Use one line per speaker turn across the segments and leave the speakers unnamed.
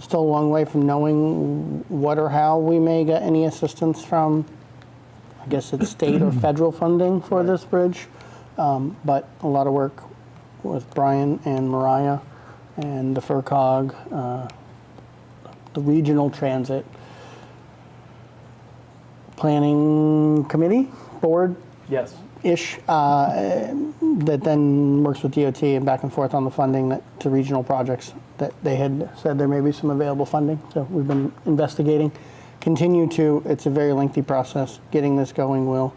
still a long way from knowing what or how we may get any assistance from, I guess it's state or federal funding for this bridge. Um, But a lot of work with Brian and Mariah and the FERCog, uh, the Regional Transit Planning Committee, Board,
Yes.
ish uh, that then works with DOT and back and forth on the funding that, to regional projects that they had said there may be some available funding. So we've been investigating, continue to. It's a very lengthy process. Getting this going will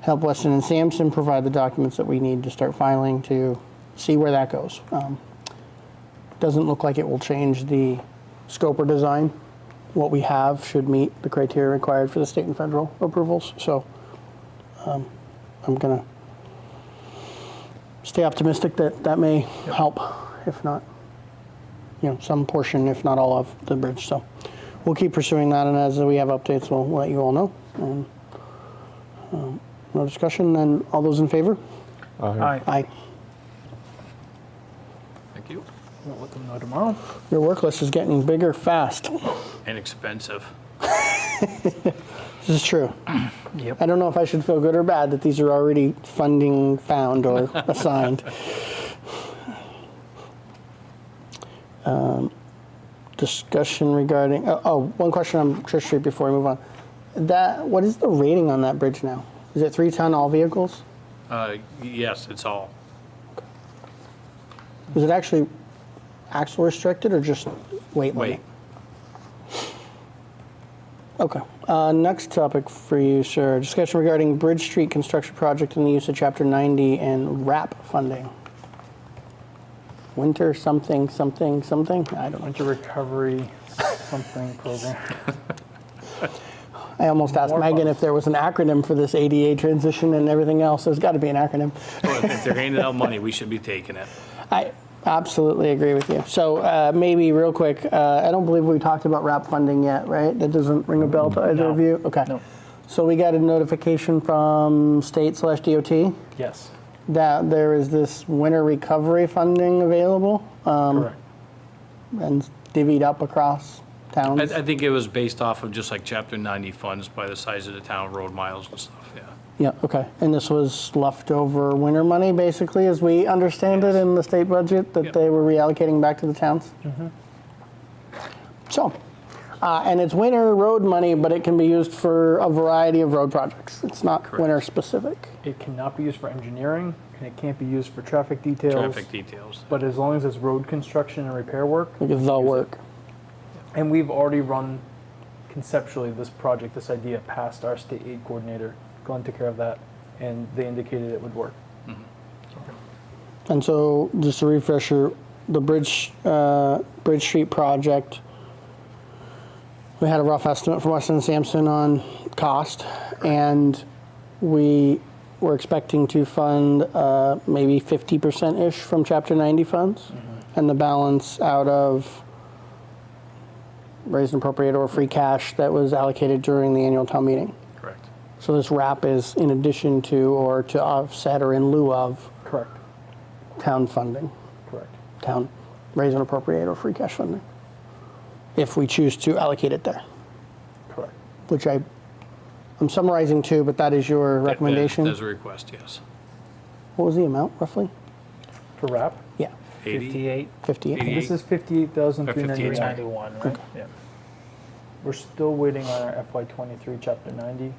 help Weston and Sampson provide the documents that we need to start filing to see where that goes. Um, doesn't look like it will change the scope or design. What we have should meet the criteria required for the state and federal approvals. So. I'm gonna stay optimistic that that may help, if not, you know, some portion, if not all of the bridge. So we'll keep pursuing that, and as we have updates, we'll let you all know. And um, no discussion. Then all those in favor?
Aye.
Aye.
Thank you.
We'll let them know tomorrow.
Your work list is getting bigger fast.
Inexpensive.
This is true.
Yep.
I don't know if I should feel good or bad that these are already funding found or assigned. Um, Discussion regarding, oh, oh, one question on Church Street before we move on. That, what is the rating on that bridge now? Is it three ton all vehicles?
Uh, yes, it's all.
Is it actually axle restricted or just weight limit?
Wait,
Okay. Uh, next topic for you, sir. Discussion regarding Bridge Street construction project and the use of Chapter 90 and RAP funding. Winter something something something. I don't know.
Winter recovery something program.
I almost asked
More
Megan
fun.
if there was an acronym for this ADA transition and everything else. There's got to be an acronym.
Well, if they're handing out money, we should be taking it.
I absolutely agree with you. So uh, maybe real quick, uh, I don't believe we talked about RAP funding yet, right? That doesn't ring a bell to either of
No.
you. Okay.
No.
So we got a notification from state slash DOT.
Yes.
that there is this winter recovery funding available um,
Correct.
and divvied up across
I,
towns.
I think it was based off of just like Chapter 90 funds by the size of the town, road miles and stuff, yeah.
yeah, okay. And this was leftover winter money, basically, as we understand it in the state budget, that
Yep. Mm-hmm.
they were reallocating back to the towns. So, uh, and it's winter road money, but it can be used for a variety of road projects. It's not
Correct.
winter specific.
It cannot be used for engineering and it can't be used for traffic details.
Traffic details.
But as long as it's road construction and repair work,
Like the work.
and we've already run conceptually this project, this idea past our state aid coordinator. Glenn took care of that and they indicated it would work.
And so, just a refresher, the Bridge, uh, Bridge Street project, we had a rough estimate from Weston and Sampson on cost, and we were expecting to fund uh, maybe 50%-ish from Chapter 90 funds, and the balance out of raised and appropriate or free cash that was allocated during the annual town meeting.
Correct.
So this wrap is in addition to, or to offset, or in lieu of,
Correct.
town funding
Correct.
town raise and appropriate or free cash funding if we choose to allocate it there,
Correct.
which I, I'm summarizing too, but that is your recommendation.
There's a request, yes.
What was the amount roughly?
For wrap,
Yeah,
80?
58,
58.
Eighty.
this is fifty-eight thousand three ninety-nine.
391, right? Yeah.
We're still waiting on our FY twenty-three, chapter ninety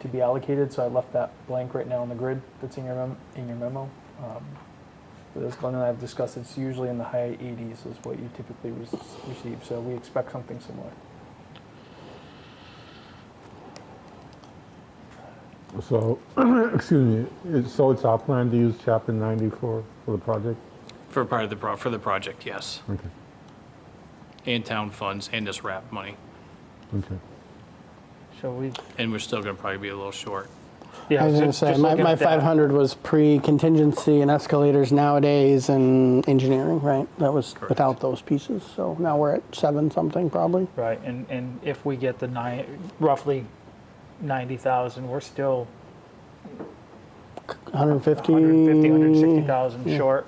to be allocated, so I left that blank right now on the grid that's in your mem- in your memo. Um, But as Glenn and I have discussed, it's usually in the high eighties is what you typically re- receive, so we expect something similar.
So, excuse me, it's- so it's our plan to use chapter 90 for, for the project?
For part of the, pro- for the project, yes.
Okay,
And town funds and this wrap money.
okay.
So we,
And we're still gonna probably be a little short.
yeah.
I was going to
just-
say,
just
my,
looking
my
at that,
500 was pre contingency and escalators nowadays and engineering, right? That was
Correct.
without those pieces. So now we're at seven something probably.
Right, and, and if we get the nine, roughly 90,000, we're still
150.
150, 160,000 short